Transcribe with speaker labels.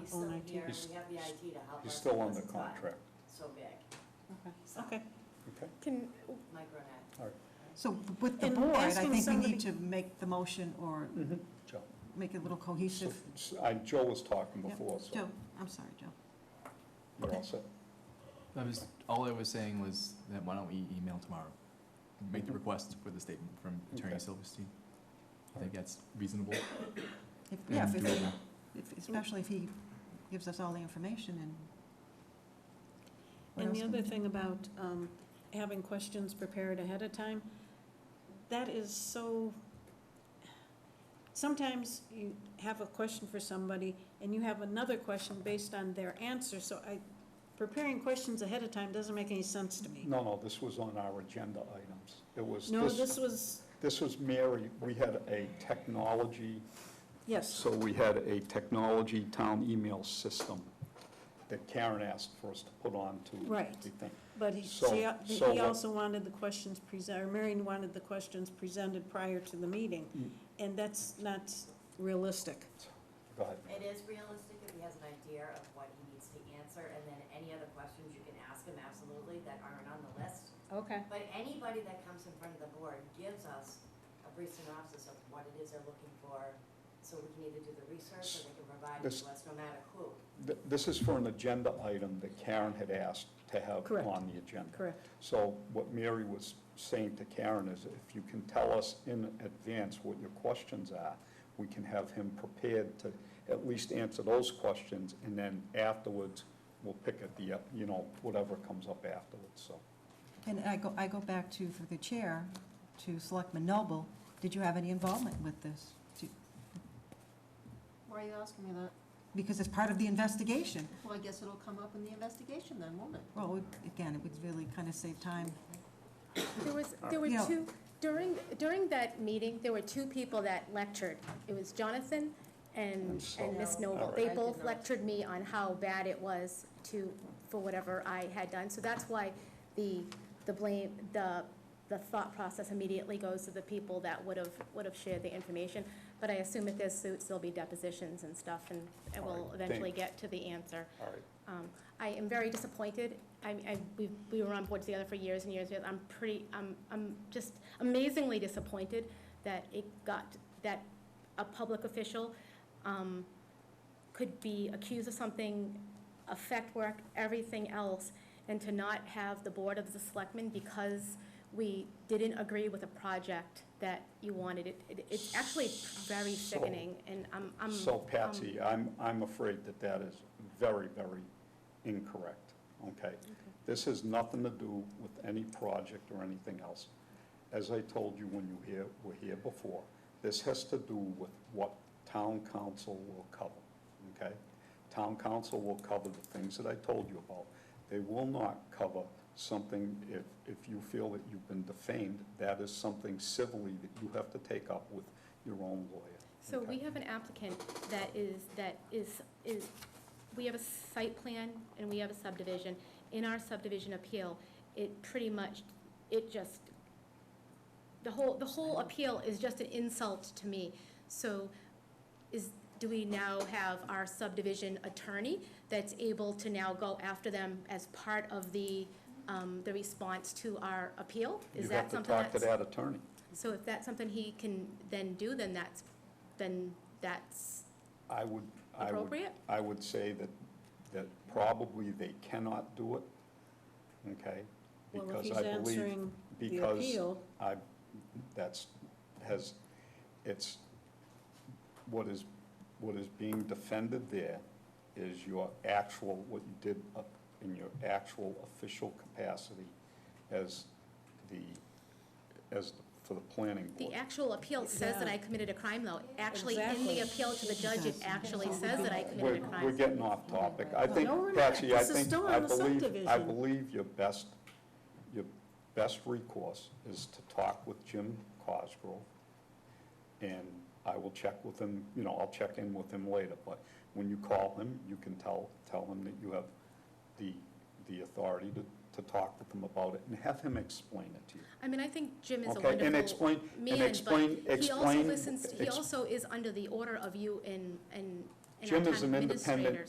Speaker 1: he's
Speaker 2: on
Speaker 1: still
Speaker 2: IT?
Speaker 1: here, and
Speaker 3: He's-
Speaker 1: we have the IT to help us.
Speaker 3: He's still on the
Speaker 1: because it's gotten
Speaker 3: contract,
Speaker 1: So big,
Speaker 2: Okay,
Speaker 3: okay?
Speaker 4: Can,
Speaker 1: micronet.
Speaker 3: All right.
Speaker 2: so with the
Speaker 4: And
Speaker 2: board, I
Speaker 4: that's when
Speaker 2: think we
Speaker 4: somebody-
Speaker 2: need to make the motion or
Speaker 3: Mhm. Joe.
Speaker 2: make it a little
Speaker 3: So,
Speaker 2: cohesive.
Speaker 3: s- I, Joe was talking
Speaker 2: Yep.
Speaker 3: before,
Speaker 2: Joe,
Speaker 3: so
Speaker 2: I'm sorry, Joe.
Speaker 3: we're all set.
Speaker 5: I was, all I was saying was that why don't we email tomorrow? Make the request for the statement from Attorney
Speaker 3: Okay.
Speaker 5: Silverstein. I think that's reasonable.
Speaker 2: If- Yeah, if-
Speaker 5: and
Speaker 2: if-
Speaker 5: doable.
Speaker 2: if- especially if he gives us all the information and. what
Speaker 6: And
Speaker 2: else
Speaker 6: the
Speaker 2: can we
Speaker 6: other
Speaker 2: do?
Speaker 6: thing about um, having questions prepared ahead of time, that is so, sometimes you have a question for somebody and you have another question based on their answer, so I, preparing questions ahead of time doesn't make any sense to me.
Speaker 3: No, no, this was on our agenda items. It was,
Speaker 6: No,
Speaker 3: this,
Speaker 6: this was,
Speaker 3: this was Mary, we had a technology,
Speaker 6: yes,
Speaker 3: so we had a technology town email system that Karen asked for us to put on to
Speaker 6: Right.
Speaker 3: the thing.
Speaker 6: but he,
Speaker 3: So-
Speaker 6: she-
Speaker 3: so
Speaker 6: he
Speaker 3: what-
Speaker 6: also wanted the questions presented, or Marion wanted the questions presented prior to the
Speaker 3: Mm.
Speaker 6: meeting, and that's not realistic.
Speaker 3: Go ahead.
Speaker 1: It is realistic if he has an idea of what he needs to answer, and then any other questions you can ask him absolutely that aren't on the list.
Speaker 6: Okay.
Speaker 1: But anybody that comes in front of the board gives us a brief synopsis of what it is they're looking for, so we can either do the research or they can provide it
Speaker 3: This-
Speaker 1: to us, no matter who.
Speaker 3: Th- This is for an agenda item that Karen had asked to have
Speaker 6: Correct.
Speaker 3: on the agenda.
Speaker 6: Correct.
Speaker 3: So what Mary was saying to Karen is if you can tell us in advance what your questions are, we can have him prepared to at least answer those questions, and then afterwards, we'll pick at the, uh, you know, whatever comes up afterwards, so.
Speaker 2: And I go, I go back to, through the chair, to Selectman Noble, did you have any involvement with this? Do-
Speaker 7: Why are you asking me that?
Speaker 2: Because it's part of the investigation.
Speaker 7: Well, I guess it'll come up in the investigation then, won't it?
Speaker 2: Well, we- again, it would really kind of save time.
Speaker 4: there was, there were
Speaker 2: Yeah.
Speaker 4: two, during, during that meeting, there were two people that lectured. It was Jonathan
Speaker 3: And
Speaker 4: and,
Speaker 3: so-
Speaker 4: and Miss Noble.
Speaker 3: Alright.
Speaker 4: They
Speaker 7: I did
Speaker 4: both
Speaker 7: not.
Speaker 4: lectured me on how bad it was to, for whatever I had done. So that's why the, the blame, the, the thought process immediately goes to the people that would have, would have shared the information. But I assume if there's suits, there'll be depositions and stuff, and and we'll
Speaker 3: Alright,
Speaker 4: eventually
Speaker 3: thank-
Speaker 4: get to the answer.
Speaker 3: All right.
Speaker 4: Um, I am very disappointed. I, I, we, we were on board together for years and years. I'm pretty, I'm, I'm just amazingly disappointed that it got, that a public official, um, could be accused of something, affect work, everything else, and to not have the Board of the Selectmen because we didn't agree with a project that you wanted. It, it- it's actually very
Speaker 3: So-
Speaker 4: sickening, and I'm, I'm.
Speaker 3: So
Speaker 4: I'm-
Speaker 3: Patsy, I'm, I'm afraid that that is very, very incorrect, okay? This has nothing to do with any project or anything else. As I told you when you here, were here before, this has to do with what town council will cover, okay? Town council will cover the things that I told you about. They will not cover something, if, if you feel that you've been defamed, that is something civilly that you have to take up with your own lawyer.
Speaker 4: So
Speaker 3: okay?
Speaker 4: we have an applicant that is, that is, is, we have a site plan and we have a subdivision. In our subdivision appeal, it pretty much, it just, the whole, the whole appeal is just an insult to me. So is, do we now have our subdivision attorney that's able to now go after them as part of the, um, the response to our appeal? Is
Speaker 3: You have
Speaker 4: that
Speaker 3: to
Speaker 4: something
Speaker 3: talk
Speaker 4: that's?
Speaker 3: to that attorney.
Speaker 4: So if that's something he can then do, then that's, then that's,
Speaker 3: I would, I would,
Speaker 4: Appropriate?
Speaker 3: I would say that, that probably they cannot do it, okay?
Speaker 6: Well, if
Speaker 3: Because
Speaker 6: he's
Speaker 3: I believe-
Speaker 6: answering the
Speaker 3: because
Speaker 6: appeal-
Speaker 3: I, that's, has, it's, what is, what is being defended there is your actual, what you did up in your actual official capacity as the, as, the- for the planning board.
Speaker 4: the actual appeal says that I committed a crime, though. Actually, in
Speaker 6: Exactly.
Speaker 4: the appeal to the judge, it actually says that I committed
Speaker 3: We're,
Speaker 4: a
Speaker 3: we're
Speaker 4: crime.
Speaker 3: getting off topic. I think,
Speaker 6: No, we're not.
Speaker 3: Patsy, I
Speaker 6: This is
Speaker 3: think,
Speaker 6: still
Speaker 3: I
Speaker 6: on the
Speaker 3: believe, I
Speaker 6: subdivision.
Speaker 3: believe your best, your best recourse is to talk with Jim Cosgrove. And I will check with him, you know, I'll check in with him later, but when you call him, you can tell, tell him that you have the, the authority to, to talk with him about it and have him explain it to you.
Speaker 4: I mean, I think Jim is a
Speaker 3: Okay, and
Speaker 4: wonderful
Speaker 3: explain- and
Speaker 4: man,
Speaker 3: explain-
Speaker 4: but he also
Speaker 3: explain-
Speaker 4: listens, he
Speaker 3: ex-
Speaker 4: also is under the order of you and, and and our
Speaker 3: Jim is
Speaker 4: town
Speaker 3: an independent
Speaker 4: administrators.